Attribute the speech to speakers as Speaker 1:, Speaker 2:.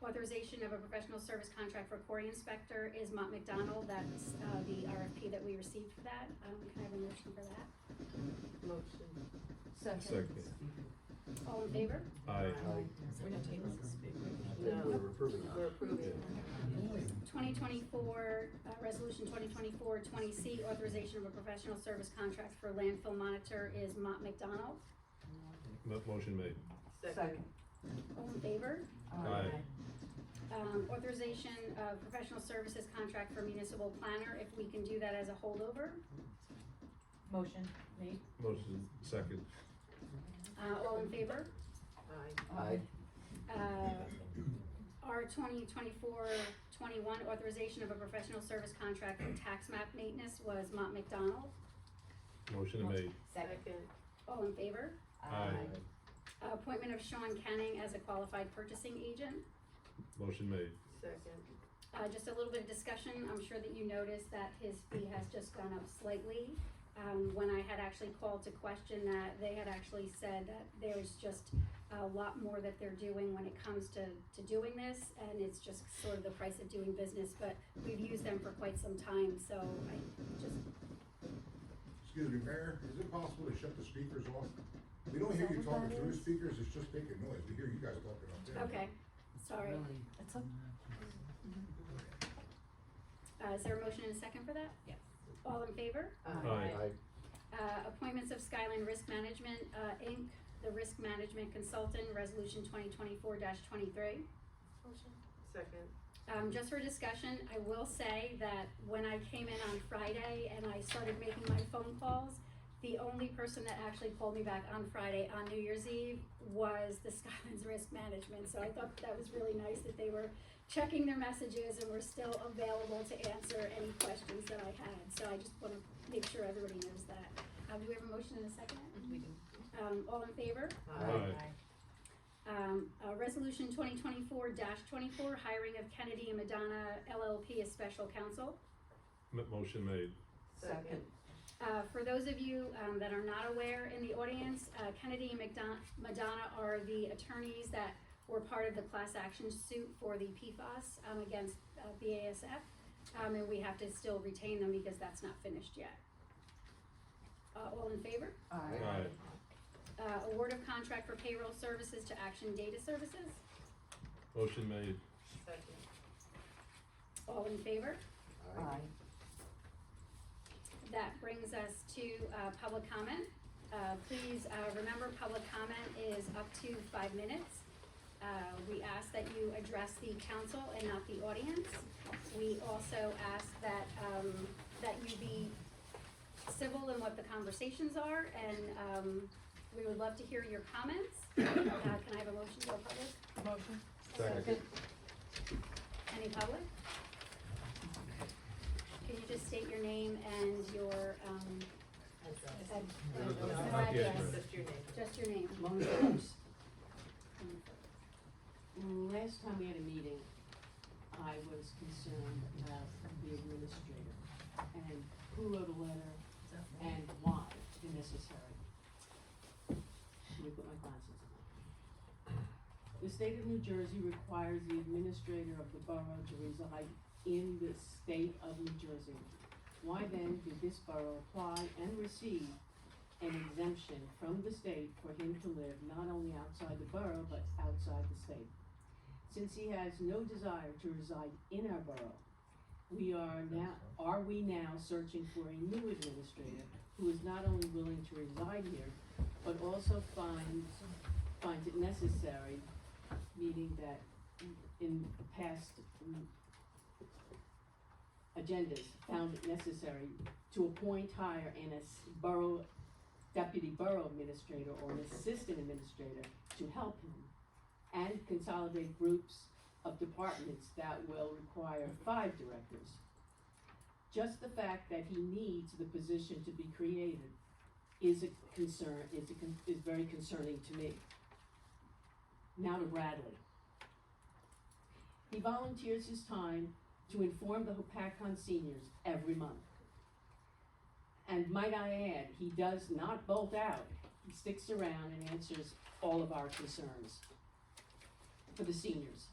Speaker 1: authorization of a professional service contract for quarry inspector is Mont McDonald. That's, uh, the RFP that we received for that. Um, can I have a motion for that?
Speaker 2: Motion.
Speaker 3: Second.
Speaker 1: All in favor?
Speaker 3: Aye.
Speaker 4: We're not tabling this.
Speaker 2: No.
Speaker 5: We're approving
Speaker 2: We're
Speaker 5: that.
Speaker 2: approving.
Speaker 1: Twenty twenty-four, uh, resolution 2024-20 C, authorization of a professional service contract for landfill monitor is Mont McDonald.
Speaker 3: Mo- Motion made.
Speaker 2: Second.
Speaker 1: All in favor?
Speaker 3: Aye.
Speaker 1: Um, authorization of professional services contract for municipal planner, if we can do that as a holdover.
Speaker 4: Motion made.
Speaker 3: Motion second.
Speaker 1: Uh, all in favor?
Speaker 2: Aye.
Speaker 5: Aye.
Speaker 1: Uh, R 2024-21 authorization of a professional service contract for tax map maintenance was Mont McDonald.
Speaker 3: Motion made.
Speaker 4: Second.
Speaker 1: All in favor?
Speaker 3: Aye.
Speaker 1: Uh, Appointment of Sean Canning as a qualified purchasing agent.
Speaker 3: Motion made.
Speaker 2: Second.
Speaker 1: Uh, just a little bit of discussion, I'm sure that you noticed that his fee has just gone up slightly. Um, when I had actually called to question that, they had actually said that there's just a lot more that they're doing when it comes to, to doing this, and it's just sort of the price of doing business, but we've used them for quite some time, so I just,
Speaker 6: Excuse me, Mayor, is it possible to shut the speakers off? We don't hear you talking through the speakers, it's just making noise, we hear you guys talking up there.
Speaker 1: okay, sorry.
Speaker 4: That's up.
Speaker 1: Uh, is there a motion and a second for that?
Speaker 4: Yes.
Speaker 1: All in favor?
Speaker 3: Aye.
Speaker 1: Uh, appointments of Skyline Risk Management, uh, Inc., the risk management consultant, resolution twenty twenty-four twenty-three.
Speaker 2: Second.
Speaker 1: Um, just for discussion, I will say that when I came in on Friday and I started making my phone calls, the only person that actually called me back on Friday on New Year's Eve was the Skylands Risk Management. So I thought that was really nice that they were checking their messages and were still available to answer any questions that I had. So I just wanna make sure everybody knows that. Um, do we have a motion and a second?
Speaker 4: We do.
Speaker 1: Um, all in favor?
Speaker 3: Aye.
Speaker 1: Um, uh, resolution twenty twenty-four twenty-four, hiring of Kennedy and Madonna LLP as special counsel.
Speaker 3: M- Motion made.
Speaker 2: Second.
Speaker 1: Uh, for those of you, um, that are not aware in the audience, uh, Kennedy and McDon- Madonna are the attorneys that were part of the class action suit for the PFAS, um, against, uh, BASF. Um, and we have to still retain them because that's not finished yet. Uh, all in favor?
Speaker 3: Aye.
Speaker 1: Uh, award of contract for payroll services to Action Data Services.
Speaker 3: Motion made.
Speaker 2: Second.
Speaker 1: All in favor?
Speaker 5: Aye.
Speaker 1: That brings us to uh, public comment. Uh, Please uh, remember, public comment is up to five minutes. Uh, We ask that you address the council and not the audience. We also ask that, um, that you be civil in what the conversations are, and um, we would love to hear your comments. Uh, Can I have a motion to go public?
Speaker 4: Motion.
Speaker 3: Second.
Speaker 1: Any public? Can you just state your name and your um, ad-
Speaker 2: No,
Speaker 1: no
Speaker 2: no,
Speaker 3: Not yet,
Speaker 1: address.
Speaker 3: but-
Speaker 2: Just your name.
Speaker 1: Just your name.
Speaker 7: Mona Jones. Last time we had a meeting, I was concerned about the administrator and who wrote a letter and why it's necessary. Let me put my glasses on. The state of New Jersey requires the administrator of the borough to reside in the state of New Jersey. Why then did this borough apply and receive an exemption from the state for him to live not only outside the borough, but outside the state. Since he has no desire to reside in our borough, we are now, are we now searching for a new administrator who is not only willing to reside here, but also finds, finds it necessary, meaning that in past mm, agendas, found it necessary to appoint, hire, and as borough deputy borough administrator or an assistant administrator to help him and consolidate groups of departments that will require five directors. Just the fact that he needs the position to be created is a concern, is a, con- is very concerning to me. Now to Bradley. He volunteers his time to inform the Hopatcon seniors every month. And might I add, he does not bolt out. He sticks around and answers all of our concerns for the seniors.